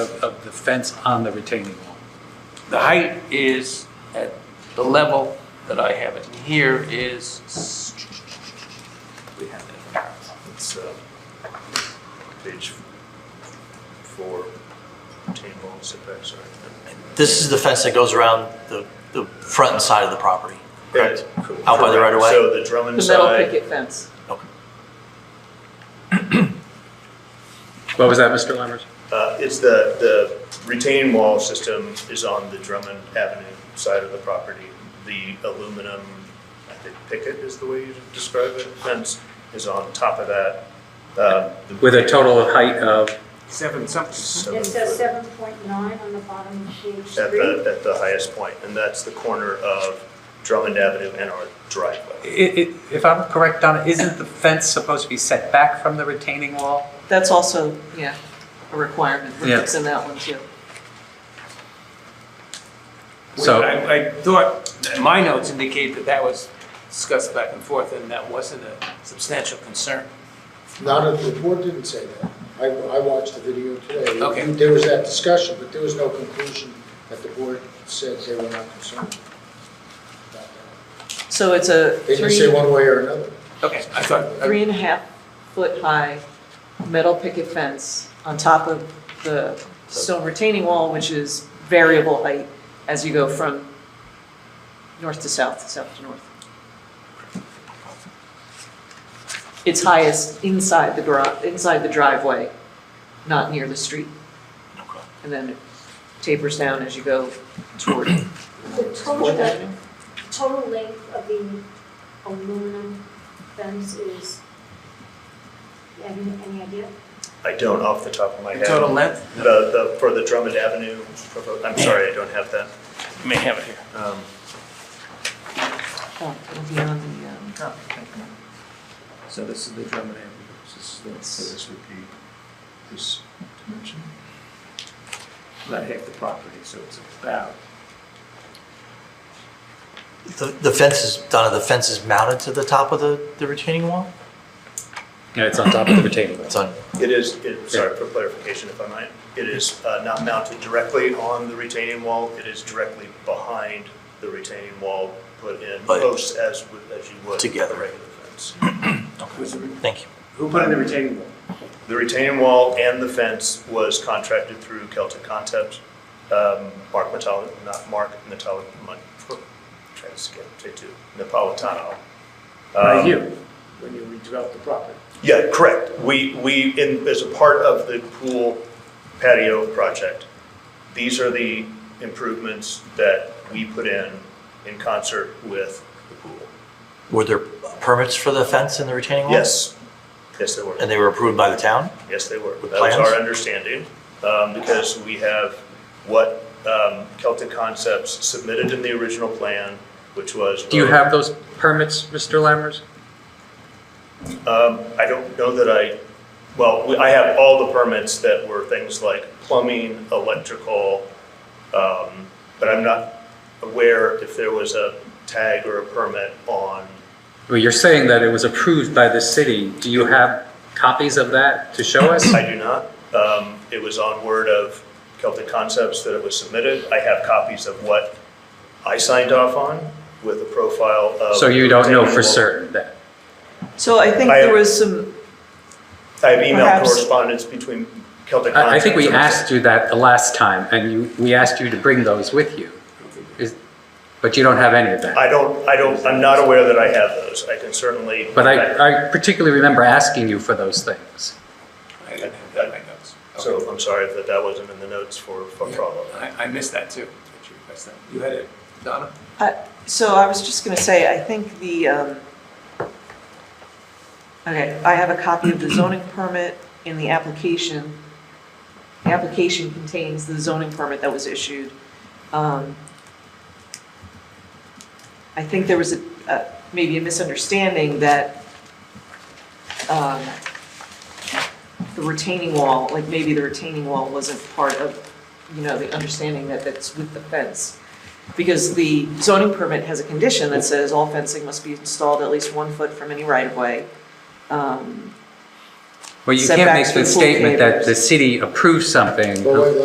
of, of the fence on the retaining wall. The height is at the level that I have it. Here is, we have it. It's uh, page four, retaining wall setback, sorry. This is the fence that goes around the, the front and side of the property. Correct. Out by the right of way? So the Drummond The metal side, picket fence. Okay. What was that, Mr. Lammers? uh, is the, the retaining wall system is on the Drummond Avenue side of the property. The aluminum, I think picket is the way you describe it, fence is on top of that. um, the- With a total height of, Seven something. Seven It says foot. seven point nine on the bottom of page At three. the, at the highest point, and that's the corner of Drummond Avenue and our i- driveway. i- if I'm correct, Donna, isn't the fence supposed to be set back from the retaining wall? That's also, yeah, a requirement. We're Yeah. fixing that one too. So- I, I thought, my notes indicate that that was discussed back and forth and that wasn't a substantial concern. None of, the board didn't say that. I, I watched the video today. Okay. There was that discussion, but there was no conclusion that the board said they were not concerned. about that. So it's a They didn't say three, one way or another. Okay, I thought, three and a half foot high metal picket fence on top of the stone retaining wall, which is variable height as you go from north to south, south to north. It's highest inside the garage, inside the driveway, not near the street. And then it tapers down as you go toward The total, the total length of the aluminum fence is, you have any any idea? I don't off the top of my the head. total length, The, the, for the Drummond Avenue, propo- I'm sorry, I don't have that. you may have it here. Um, Oh, it'll be on the, um, So this is the Drummond Avenue, this is, the- so this would be this dimension? Um, About half the property, so it's about. The, the fence is, Donna, the fence is mounted to the top of the, the retaining wall? Yeah, it's on top of the retaining wall. It's on, It is, it, sorry for clarification if I might, it is uh, not mounted directly on the retaining wall, it is directly behind the retaining wall, put in But- close as, with- as you would. Together. A regular fence. thank you. Who put in the retaining wall? The retaining wall and the fence was contracted through Celtic Concepts. Um, Mark Metalli, not Mark Metalli, my, trying to skip, say two, Napolitano. By Um, you, when you redeveloped the property. Yeah, correct. We, we, in, as a part of the pool patio project, these are the improvements that we put in, in concert with the pool. Were there permits for the fence and the retaining wall? Yes, yes, they were. Uh-huh. And they were approved by the town? Yes, they were. With That was plans? our understanding, um, because we have what um, Celtic Concepts submitted in the original plan, which was. Do you have those permits, Mr. Lammers? Um, I don't know that I, well, we- I have all the permits that were things like plumbing, electrical, um, but I'm not aware if there was a tag or a permit on, Well, you're saying that it was approved by the city. Do you have copies of that to show us? I do not. Um, It was on word of Celtic Concepts that it was submitted. I have copies of what I signed off on with a profile of. So you don't know for Retaining wall. certain that? so I think I- there was some I have email Perhaps- correspondence between Celtic Concepts. I, I think we and- asked you that the last time, and you, we asked you to bring those with you. Is, but you don't have any of that. I don't, I don't, I'm not aware that I have those. I can certainly. But I, I particularly remember asking you for those things. I didn't have that in my notes. So I'm sorry that that wasn't in the notes for, for follow-up. I, I missed that too. that you requested. You had it, Donna? So I was just going to say, I think the, um, okay, I have a copy of the zoning permit in the application. The application contains the zoning permit that was issued. Um, I think there was a, uh, maybe a misunderstanding that um, the retaining wall, like maybe the retaining wall wasn't part of, you know, the understanding that that's with the fence. Because the zoning permit has a condition that says all fencing must be installed at least one foot from any right-of-way. Um, Well, you can't Setbacks make the and pool statement that tables. the city approves something But wait,